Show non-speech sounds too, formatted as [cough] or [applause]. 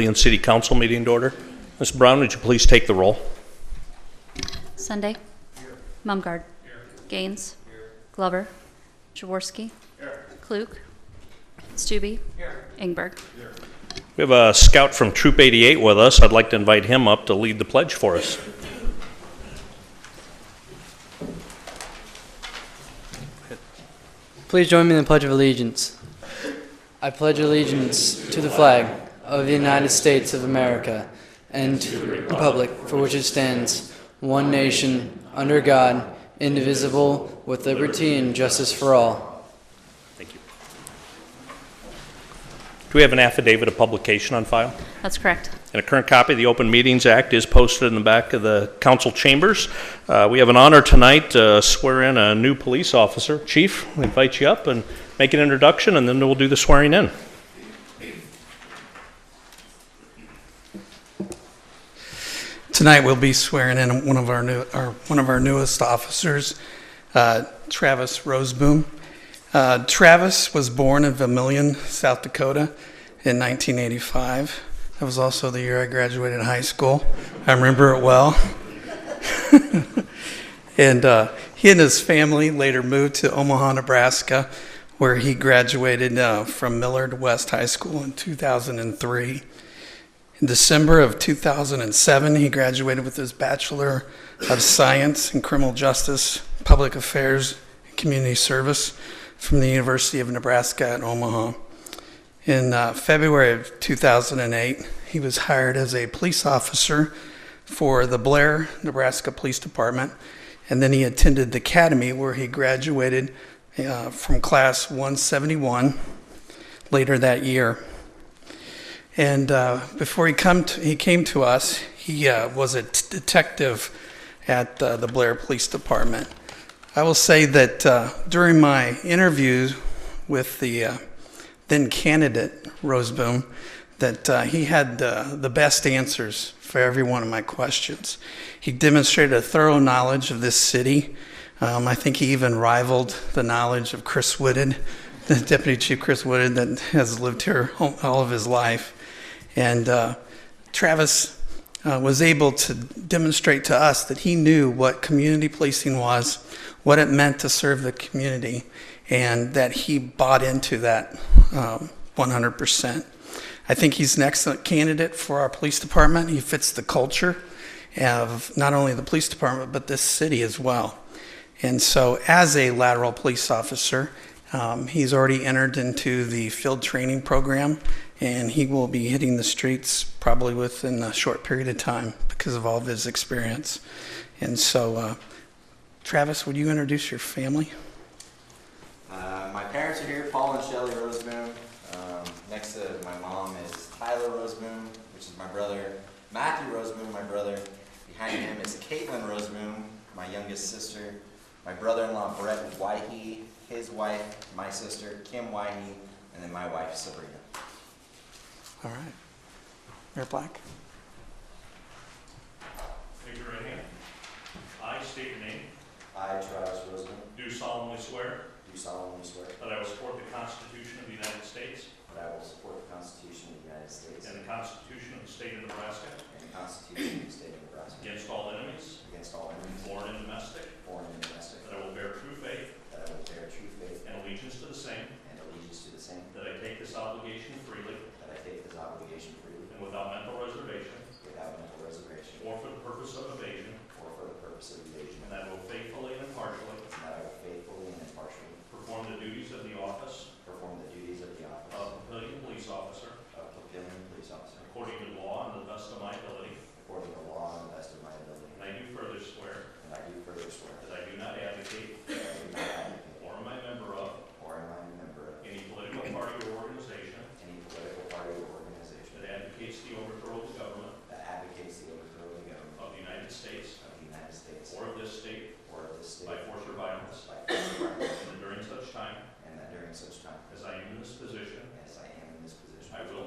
Leon City Council meeting to order. Ms. Brown, would you please take the roll? Sunday. Mumgarde. Gaines. Glover. Jaworski. Klug. Stube. Ingberg. We have a scout from Troop 88 with us. I'd like to invite him up to lead the pledge for us. Please join me in the Pledge of Allegiance. I pledge allegiance to the flag of the United States of America and to the republic for which it stands, one nation, under God, indivisible, with liberty and justice for all. Thank you. Do we have an affidavit of publication on file? That's correct. And a current copy of the Open Meetings Act is posted in the back of the council chambers. Uh, We have an honor tonight to swear in a new police officer. Chief, we invite you up and make an introduction, and then we'll do the swearing in. Tonight we'll be swearing in one of our new, our, one of our newest officers, uh, Travis Roseboom. Uh, Travis was born in Vermillion, South Dakota, in 1985. That was also the year I graduated high school. I remember it well. [laughs] and uh, he and his family later moved to Omaha, Nebraska, where he graduated uh, from Millard West High School in 2003. In December of 2007, he graduated with his Bachelor of Science in Criminal Justice, Public Affairs, and Community Service from the University of Nebraska at Omaha. In uh, February of 2008, he was hired as a police officer for the Blair, Nebraska Police Department, and then he attended the academy where he graduated uh, from class 171 later that year. And uh, before he come to, he came to us, he uh, was a t- detective at uh, the Blair Police Department. I will say that uh, during my interview with the uh, then candidate Roseboom, that uh, he had uh, the best answers for every one of my questions. He demonstrated a thorough knowledge of this city. Um, I think he even rivaled the knowledge of Chris Whitted, [laughs] the Deputy Chief Chris Whitted, that has lived here all all of his life. And uh, Travis uh, was able to demonstrate to us that he knew what community policing was, what it meant to serve the community, and that he bought into that um, 100%. I think he's an excellent candidate for our police department. He fits the culture of not only the police department, but this city as well. And so, as a lateral police officer, um, he's already entered into the field training program, and he will be hitting the streets probably within a short period of time because of all of his experience. And so, uh, Travis, would you introduce your family? Uh, my parents are here, Paul and Shelly Roseboom. Um, next to my mom is Tyler Roseboom, which is my brother. Matthew Roseboom, my brother. Behind him is Caitlin Roseboom, my youngest sister. My brother-in-law Brett Wyhee, his wife, my sister Kim Wyhee, and then my wife Sabrina. All right. Mayor Black? Raise your right hand. I state your name. I, Travis Roseboom, Do solemnly swear do solemnly swear that I will support the Constitution of the United States that I will support the Constitution of the United States and the Constitution of the State of Nebraska and the Constitution of the State of Nebraska against all enemies, against all enemies, foreign and domestic, foreign and domestic, that I will bear true faith that I will bear true faith and allegiance to the same, and allegiance to the same, that I take this obligation freely That I take this obligation freely and without mental reservation without mental reservation or for the purpose of evasion, or for the purpose of evasion. and And that I will faithfully and impartially that I will faithfully and impartially perform the duties of the office perform the duties of the of office Papillion Police Officer of Papillion Police Officer according to law and to the best of my ability. according to law and the best of my ability. And I do further swear And I do further swear that I do not advocate that I do not advocate or am I a member of or am I a member of any political party or organization any political party or organization that advocates the overthrow of the government that advocates the overthrow of the government of the United States of the United States or of this state or of this state by by force or violence, force or violence, and that during such time and that during such time as I am in this position, as I am in this position, I will